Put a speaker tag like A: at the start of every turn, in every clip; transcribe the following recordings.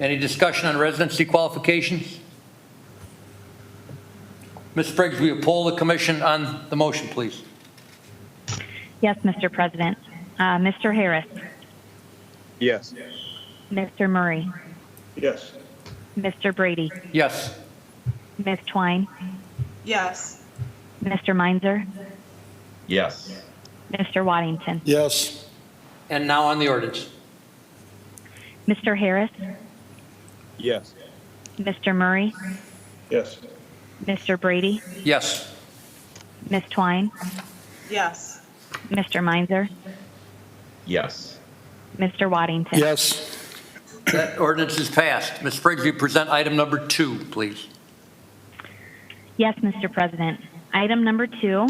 A: Any discussion on residency qualifications? Ms. Briggs, will you poll the commission on the motion, please?
B: Yes, Mr. President. Uh, Mr. Harris,
C: Yes.
B: Mr. Murray,
C: Yes.
B: Mr. Brady,
A: Yes.
B: Ms. Twine,
D: yes,
B: Mr. Meinzer,
E: yes,
B: Mr. Waddington.
F: yes,
A: And now on the ordinance.
B: Mr. Harris,
C: Yes.
B: Mr. Murray,
C: Yes.
B: Mr. Brady,
A: Yes.
B: Ms. Twine,
D: yes,
B: Mr. Meinzer,
E: yes,
B: Mr. Waddington.
F: yes,
A: That ordinance is passed. Ms. Briggs, will you present item number two, please?
B: Yes, Mr. President. Item number two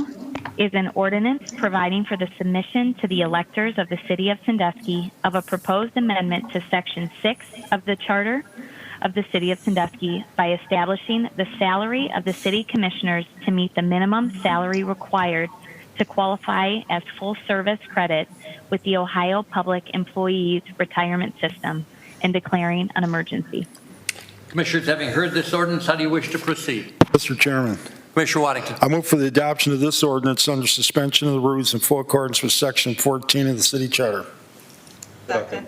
B: is an ordinance providing for the submission to the electors of the City of Sandusky of a proposed amendment to Section 6 of the Charter of the City of Sandusky by establishing the salary of the city commissioners to meet the minimum salary required to qualify as full-service credit with the Ohio Public Employees Retirement System and declaring an emergency.
A: Commissioners, having heard this ordinance, how do you wish to proceed?
F: Mr. Chairman.
A: Commissioner Waddington.
F: I move for the adoption of this ordinance under suspension of the rules in full accordance with Section 14 of the City Charter.
D: second,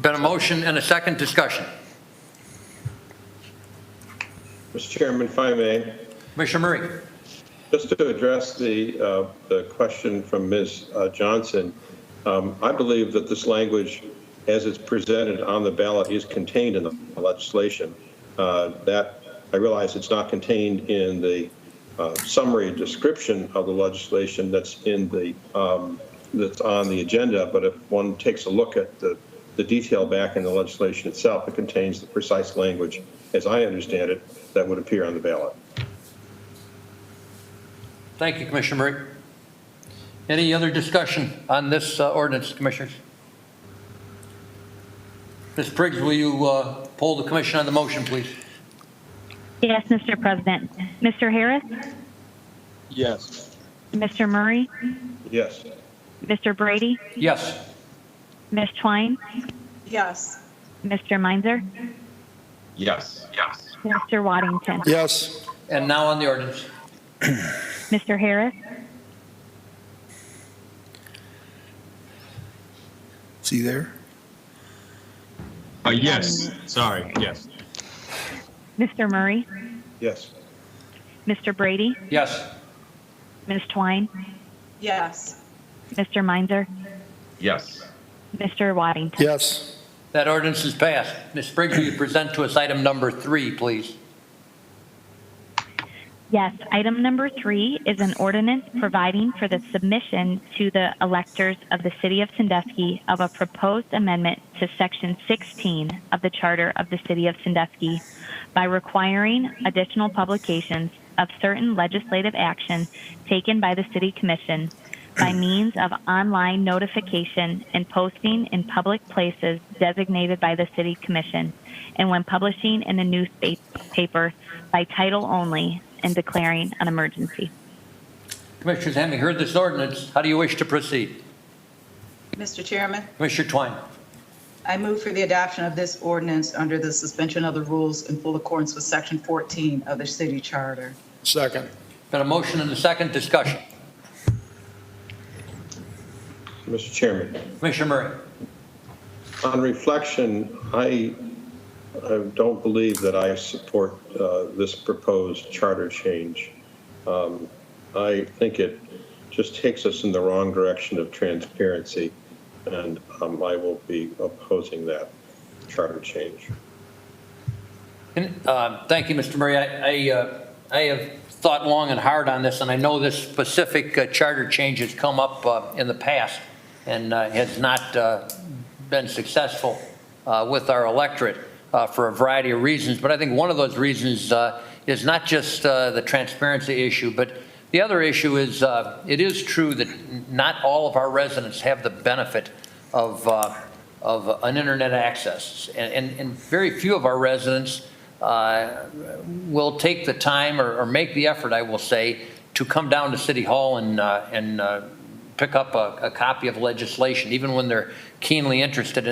A: Been a motion and a second discussion.
C: Mr. Chairman, if I may,
A: Commissioner Murray.
C: just to address the, uh, the question from Ms. uh, Johnson, um, I believe that this language, as it's presented on the ballot, is contained in the legislation. Uh, That, I realize it's not contained in the uh, summary description of the legislation that's in the, um, that's on the agenda, but if one takes a look at the, the detail back in the legislation itself, it contains the precise language, as I understand it, that would appear on the ballot.
A: Thank you, Commissioner Murray. Any other discussion on this uh, ordinance, Commissioners? Ms. Briggs, will you uh, poll the commission on the motion, please?
B: Yes, Mr. President. Mr. Harris,
C: Yes.
B: Mr. Murray,
C: Yes.
B: Mr. Brady,
A: Yes.
B: Ms. Twine,
D: yes,
B: Mr. Meinzer,
E: yes, yes,
B: Mr. Waddington.
F: Yes,
A: And now on the ordinance.
B: Mr. Harris,
F: see there?
G: Uh, yes, sorry, yes,
B: Mr. Murray,
C: Yes.
B: Mr. Brady,
A: Yes.
B: Ms. Twine,
D: yes,
B: Mr. Meinzer,
E: yes,
B: Mr. Waddington.
F: Yes,
A: That ordinance is passed. Ms. Briggs, will you present to us item number three, please?
B: Yes, item number three is an ordinance providing for the submission to the electors of the City of Sandusky of a proposed amendment to Section 16 of the Charter of the City of Sandusky by requiring additional publications of certain legislative action taken by the City Commission by means of online notification and posting in public places designated by the City Commission, and when publishing in the newspaper by title only and declaring an emergency.
A: Commissioners, having heard this ordinance, how do you wish to proceed?
D: Mr. Chairman.
A: Commissioner Twine.
D: I move for the adoption of this ordinance under the suspension of the rules in full accordance with Section 14 of the city charter.
F: second.
A: Been a motion and a second discussion.
C: Mr. Chairman,
A: Commissioner Murray.
C: on reflection, I, I don't believe that I support uh, this proposed charter change. Um, I think it just takes us in the wrong direction of transparency, and um, I will be opposing that charter change.
A: And, uh, Thank you, Mr. Murray. I, I, uh, I have thought long and hard on this, and I know this specific uh, charter change has come up uh, in the past and uh, has not uh, been successful uh, with our electorate uh, for a variety of reasons. But I think one of those reasons uh, is not just uh, the transparency issue, but the other issue is, uh, it is true that n- not all of our residents have the benefit of, uh, of an internet access. And, and- and very few of our residents uh, will take the time or, or make the effort, I will say, to come down to City Hall and, uh, and uh, pick up a, a copy of legislation, even when they're keenly interested in